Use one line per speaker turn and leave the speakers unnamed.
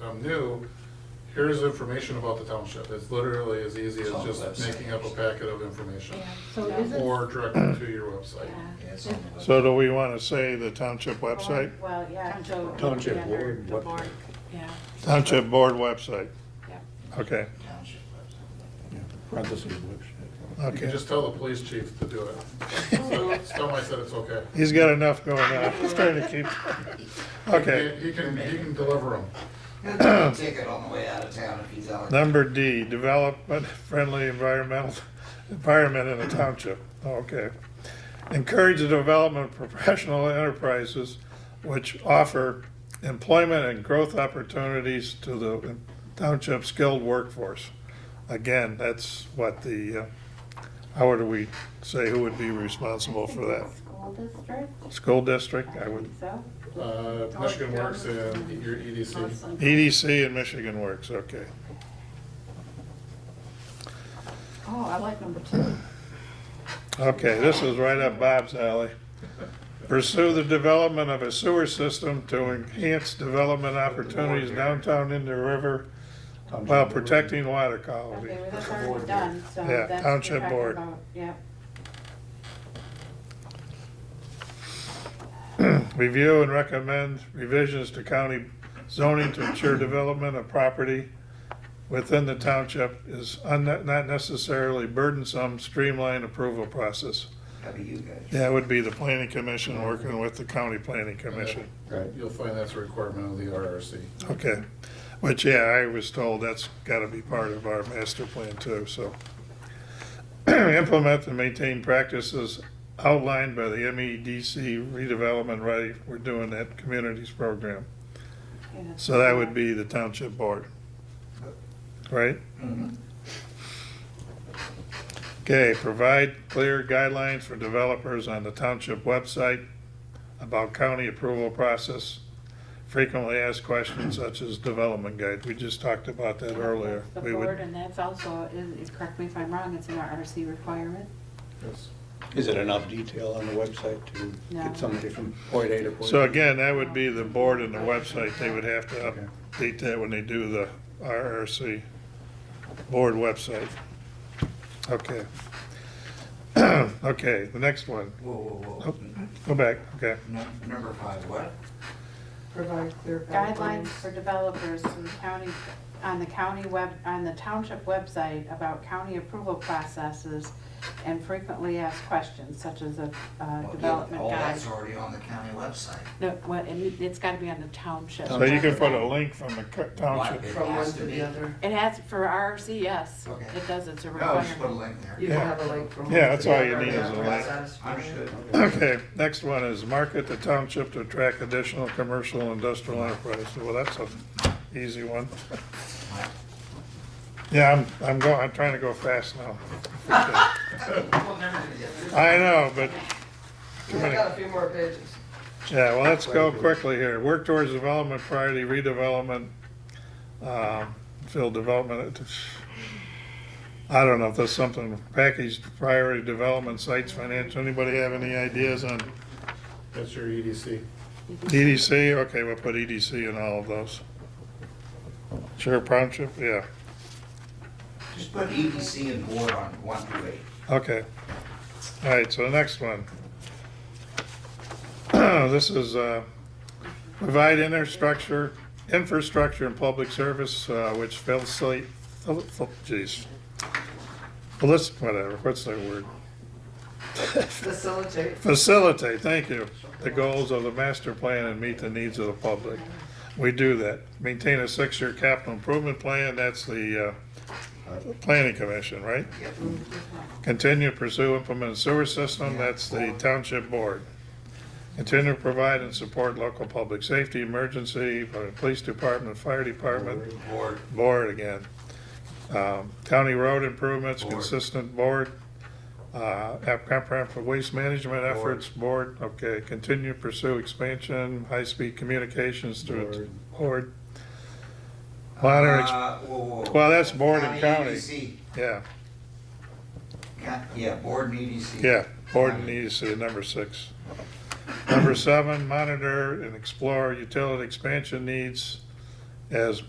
something new, here's information about the township. It's literally as easy as
It's on the
just
website.
making up a packet of information.
Yeah, so is it?
Or directly to your website.
Yeah.
Yeah, it's on the
So do we want to say the township website?
Well, yeah, so.
Township
yeah,
board,
the
what-
board, Yeah,
Township board website,
yeah.
okay,
township website.
Parentheses, whoops.
You can
okay.
just tell the police chief to do it. So Tell him I said it's okay.
He's got enough going on, he's trying to keep, okay.
He he can, he can deliver them.
Ticket on the way out of town if he's out.
Number D, development friendly environmental, environment in the township, okay. Encourage the development of professional enterprises which offer employment and growth opportunities to the township skilled workforce. Again, that's what the, uh, how do we say who would be responsible for that?
School district?
School district, I would,
think So?
Uh, Michigan Works and your E EDC.
Awesome.
EDC E and Michigan Works, okay.
Oh, I like number two.
Okay, this is right up Bob's alley. Pursue the development of a sewer system to enhance development opportunities downtown in the river while protecting water
Oh,
quality.
Okay, well, that's already done, so
Yeah,
that's. what we're
township
talking
board.
about, Yeah.
Review and recommend revisions to county zoning to ensure development of property within the township is un- not necessarily burdensome, streamlined approval process.
That'd be you guys.
That would be the planning commission working with the county planning commission.
Right.
You'll find that's a requirement of the RRC.
Okay, which, yeah, I was told that's gotta be part of our master plan too, so. Implement and maintain practices outlined by the MEDC redevelopment, right, we're doing that communities program.
yeah, that's-
So that would be the township board, right?
Mhm.
Okay, provide clear guidelines for developers on the township website about county approval process. Frequently asked questions such as development guide, we just talked about that earlier.
That's The
We
board,
would,
and that's also, is, correct me if I'm wrong, it's an RRC requirement.
Yes.
Is it enough detail on the website to
No.
get somebody from point A to point B?
so again, that would be the board and the website, they would have to update that when they do the RRC board website. Okay. Okay, the next one,
Whoa, whoa, whoa.
Oh. go back, okay.
Num- Number five, what?
Provide clear
Guidelines for developers to the county, on the county web, on the township website about county approval processes and frequently asked questions such as a, uh,
Well, yeah,
development
All
guide.
that's already on the county website.
No, what, and it- it's gotta be on the township.
So you can put a link from the co- township.
What? It
From one
has
to
be.
the other.
It has, for RRC, yes,
Okay.
it does, it's a
No, Oh, just put a
requirement.
link there.
You can have a link from. one
Yeah,
to
that's
the
all you
other.
need is a link.
Understood.
Okay, next one is market the township to attract additional commercial and industrial enterprise. Well, that's an easy one. Yeah, I'm, I'm going, I'm trying to go fast now.
We'll never get this.
I know, but,
I got a few more pages.
yeah, well, let's go quickly here. Work towards development priority, redevelopment, um, field development. I don't know if there's something, packaged priority development sites, financial, anybody have any ideas on
That's your E EDC.
EDC, okay, we'll put EDC in all of those. Sheriff Township, yeah,
Just put EDC and board on one through eight.
okay. All right, so the next one. This is, uh, provide infrastructure, infrastructure and public service, uh, which facilitate, geez. Let's, whatever, what's that word?
Facilitate.
Facilitate, thank you, the goals of the master plan and meet the needs of the public. We do that. Maintain a six-year capital improvement plan, that's the uh, planning commission, right?
Yep.
Continue to pursue implement sewer system, that's the township board. Continue to provide and support local public safety, emergency, uh, police department, fire department,
Board,
board again. Um, County road improvements,
Board.
consistent board, uh, app- comprehensive waste management
Board.
efforts, board, okay, continue to pursue expansion, high-speed communications through board. Monitor, ex-
Uh, whoa, whoa, whoa.
well, that's board and county,
EDC.
yeah,
Ca- Yeah, board and E EDC.
yeah, board
County.
needs to, number six. Number seven, monitor and explore utility expansion needs as